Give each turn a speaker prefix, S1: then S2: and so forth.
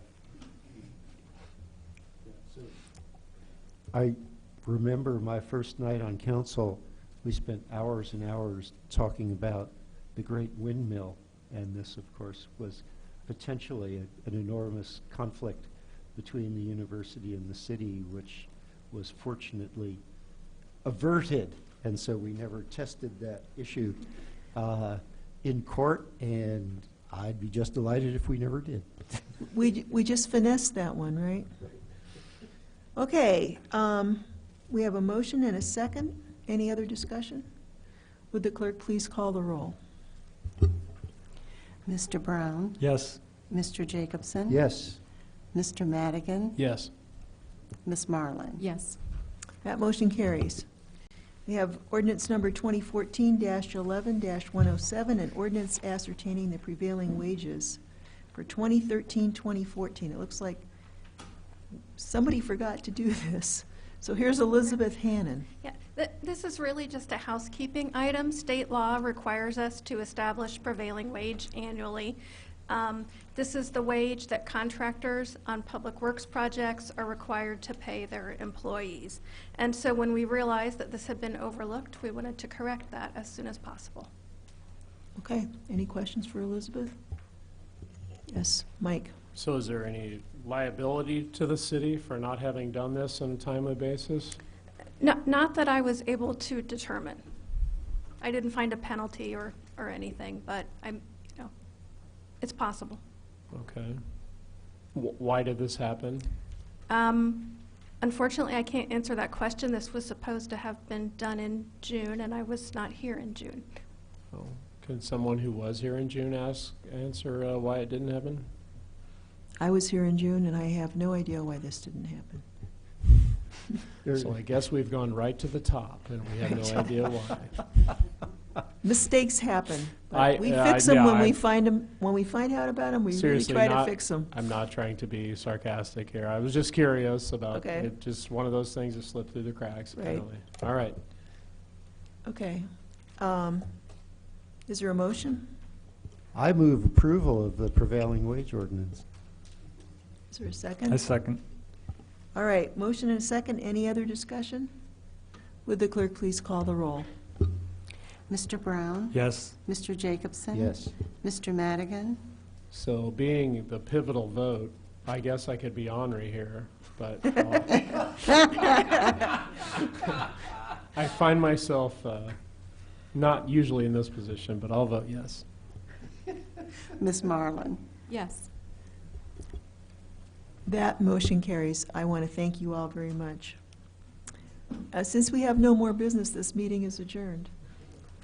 S1: I remember my first night on council, we spent hours and hours talking about the great windmill, and this, of course, was potentially a- an enormous conflict between the university and the city, which was fortunately averted, and so we never tested that issue uh, in court, and I'd be just delighted if we never did.
S2: We, we just finessed that one, right? Okay, um, we have a motion and a second. Any other discussion? Would the clerk please call the roll?
S3: Mr. Brown?
S4: Yes.
S3: Mr. Jacobson?
S1: Yes,
S3: Mr. Madigan?
S4: Yes.
S3: Ms. Marlin?
S5: Yes.
S2: That motion carries. We have ordinance number 2014-11-107, an ordinance ascertaining the prevailing wages for 2013-2014. It looks like somebody forgot to do this. So here's Elizabeth Hannon.
S6: Yeah, th- this is really just a housekeeping item. State law requires us to establish prevailing wage annually. Um, This is the wage that contractors on public works projects are required to pay their employees. And so when we realized that this had been overlooked, we wanted to correct that as soon as possible.
S2: Okay, any questions for Elizabeth? Yes, Mike?
S4: So is there any liability to the city for not having done this on a timely basis?
S6: Not not that I was able to determine. I didn't find a penalty or or anything, but I'm, you know, it's possible.
S4: Okay. Wh- Why did this happen?
S6: Um, Unfortunately, I can't answer that question. This was supposed to have been done in June, and I was not here in June.
S4: Can someone who was here in June ask, answer uh, why it didn't happen?
S2: I was here in June, and I have no idea why this didn't happen.
S1: There-
S4: So I guess we've gone right to the top, and we have no idea why.
S2: Mistakes happen. but
S4: I-
S2: We
S4: I-
S2: fix them
S4: yeah,
S2: when we
S4: I-
S2: find them, when we find out about them, we really
S4: Seriously,
S2: try to
S4: not-
S2: fix them.
S4: I'm not trying to be sarcastic here. I was just curious about,
S2: Okay.
S4: it. just one of those things that slipped through the cracks,
S2: Right.
S4: apparently. All right.
S2: Okay. Um, Is there a motion?
S1: I move approval of the prevailing wage ordinance.
S2: Is there a
S7: I
S2: second?
S7: second.
S2: All right, motion and a second. Any other discussion? Would the clerk please call the roll?
S3: Mr. Brown?
S7: Yes.
S3: Mr. Jacobson?
S1: Yes.
S3: Mr. Madigan?
S4: So being the pivotal vote, I guess I could be ornery here, but uh, I'll- I find myself uh, not usually in this position, but I'll vote yes.
S3: Ms. Marlin?
S5: Yes.
S2: That motion carries. I want to thank you all very much. Uh, Since we have no more business, this meeting is adjourned.